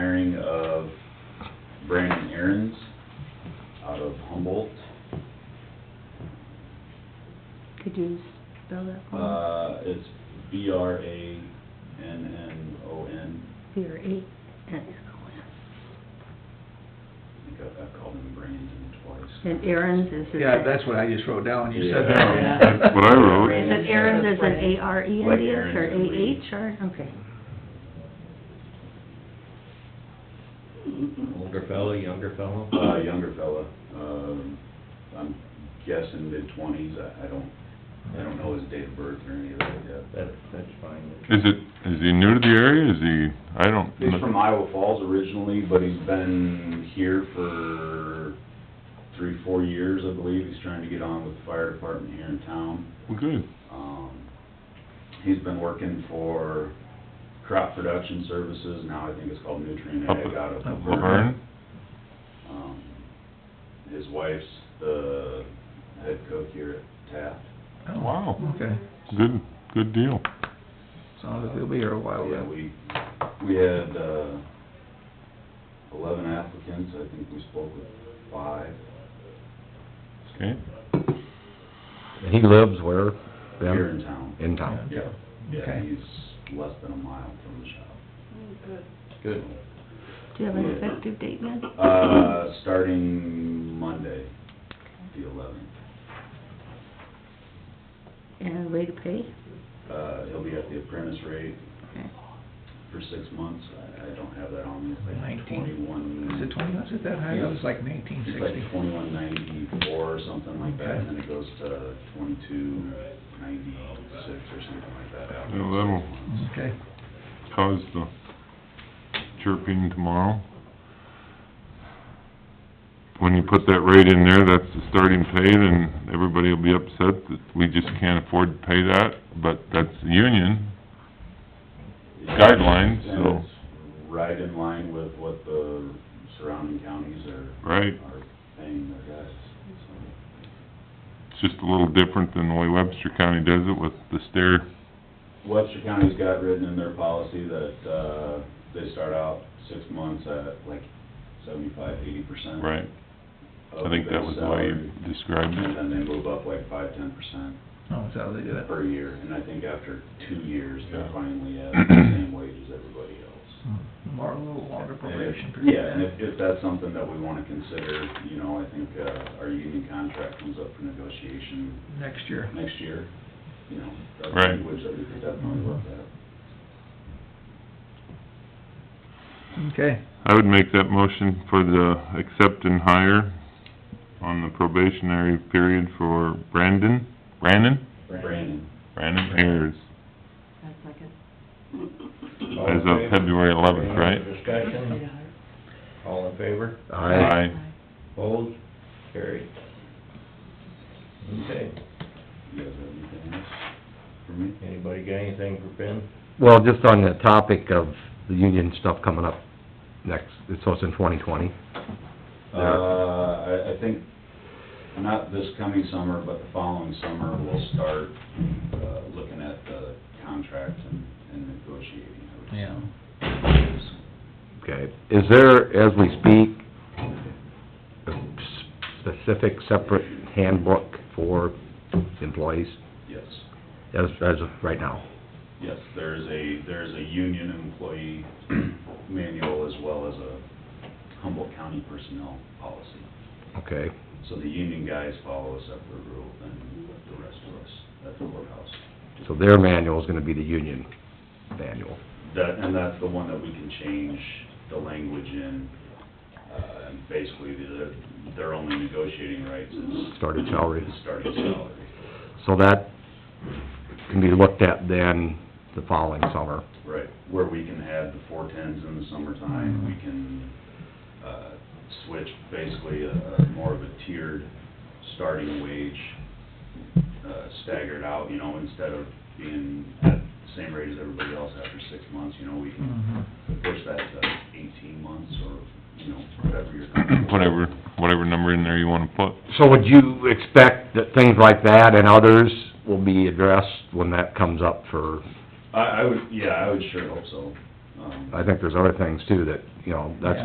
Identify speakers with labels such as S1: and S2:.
S1: Brandon Aaron's out of Humboldt.
S2: Could you spell that for
S1: Uh, it's B R A N N O N.
S2: me? Or eight?
S1: I think I- I've called him Brandon twice.
S2: And Aaron's
S3: Mm-hmm.
S2: is. his-
S4: Yeah, that's what I just wrote down, you said
S1: Yeah.
S4: that.
S5: That's what I wrote.
S2: Is it Aaron's is an A R E N
S1: Like
S2: D S or
S1: Aaron's and
S2: A
S1: Reed.
S2: H or, okay.
S3: Older fellow, younger fellow?
S1: Uh, younger fella, um, I'm guessing mid-twenties, I, I don't, I don't know his date of birth or any of that yet.
S3: That, that's fine.
S5: Is it, is he new to the area, is he, I don't...
S1: He's from Iowa Falls originally, but he's been here for three, four years, I believe. He's trying to get on with the fire department here in town.
S5: Well, Good,
S1: Um, he's been working for Crop Production Services, now I think it's called Nutrient
S5: Up-
S1: Ag out of
S4: up
S1: Laverne.
S5: Laverne,
S1: Um, his wife's the head cook here at Taft.
S5: Wow.
S4: Oh, Okay,
S5: good, good deal.
S4: sounds like they'll be here a while
S1: Yeah,
S4: then.
S1: we, we had, uh, eleven applicants, I think we spoke with five.
S5: Okay,
S6: And he lives where? Ben?
S1: Here in town.
S6: In town.
S1: Yeah, yeah,
S4: Okay.
S1: he's less than a mile from the shop.
S3: Good.
S2: Do you have an effective date yet?
S1: Uh, starting Monday, the eleventh,
S2: And way to pay?
S1: uh, he'll be at the apprentice rate
S2: Okay.
S1: for six months, I, I don't have that on me, it's like
S4: 19.
S1: twenty-one.
S4: Is it twenty, was it that high? That was like nineteen
S1: It's
S4: sixty.
S1: like twenty-one ninety-four or something like that, and then it goes to twenty-two ninety-six or something like that after.
S5: Yeah, that'll-
S1: six months.
S4: Okay,
S5: how's the chirping tomorrow? When you put that rate in there, that's the starting pay, then everybody will be upset that we just can't afford to pay that, but that's the union, guidelines, so-
S1: And it's Right in line with what the surrounding counties are,
S5: right?
S1: are paying their guys, so.
S5: It's just a little different than the way Webster County does it with the stair
S1: Webster County's got written in their policy that, uh, they start out six months at like seventy-five, eighty percent.
S5: Right, I think that was the way you described
S1: And
S5: it.
S1: then they move up like five, ten percent
S4: oh, is that how they do it?
S1: per year, and I think after two years, they're
S5: Yeah.
S1: finally at the same wage as everybody else.
S4: More, a little longer probation
S1: And if- Yeah, and
S4: period.
S1: if, if that's something that we wanna consider, you know, I think, uh, our union contract comes up for negotiation
S4: Next year.
S1: next year, you know. that's
S5: Right.
S1: Language that we could definitely look at.
S4: Okay,
S5: I would make that motion for the accept and hire on the probationary period for Brandon, Brandon?
S1: Brandon.
S5: Brandon Ayers,
S3: All in
S5: as of
S3: favor?
S5: February eleventh, right?
S3: Discussion, all in favor,
S6: Aye.
S3: opposed, carried. Okay,
S1: You guys have anything else for me?
S3: anybody got anything for Ben?
S6: Well, just on the topic of the union stuff coming up next, so it's in twenty twenty.
S1: Uh, I, I think, not this coming summer, but the following summer, we'll start, uh, looking at the contract and, and negotiating. I would
S4: Yeah.
S1: assume.
S6: Okay. Is there, as we speak, a s- specific separate handbook for employees
S1: Yes,
S6: as, as of right now?
S1: yes, there's a, there's a union employee manual as well as a Humboldt County personnel policy.
S6: Okay.
S1: So the union guys follow a separate rule than the rest of us at the courthouse.
S6: So their manual is gonna be the union manual.
S1: That, and that's the one that we can change the language in, uh, and basically, their, their only negotiating rights is...
S6: Starting salary.
S1: is Starting salary,
S6: So that can be looked at then the following summer.
S1: right, where we can add the four tens in the summertime,
S6: Mm-hmm.
S1: we can, uh, switch basically a, a more of a tiered starting wage, uh, staggered out, you know, instead of being at the same rate as everybody else after six months, you know, we can
S4: Mhm.
S1: push that to eighteen months or, you know, whatever you're comfortable with.
S5: Whatever, whatever number in there you wanna put.
S6: So would you expect that things like that and others will be addressed when that comes up for,
S1: I, I would, yeah, I would sure hope so. Um,
S6: I think there's other things too that, you know, that's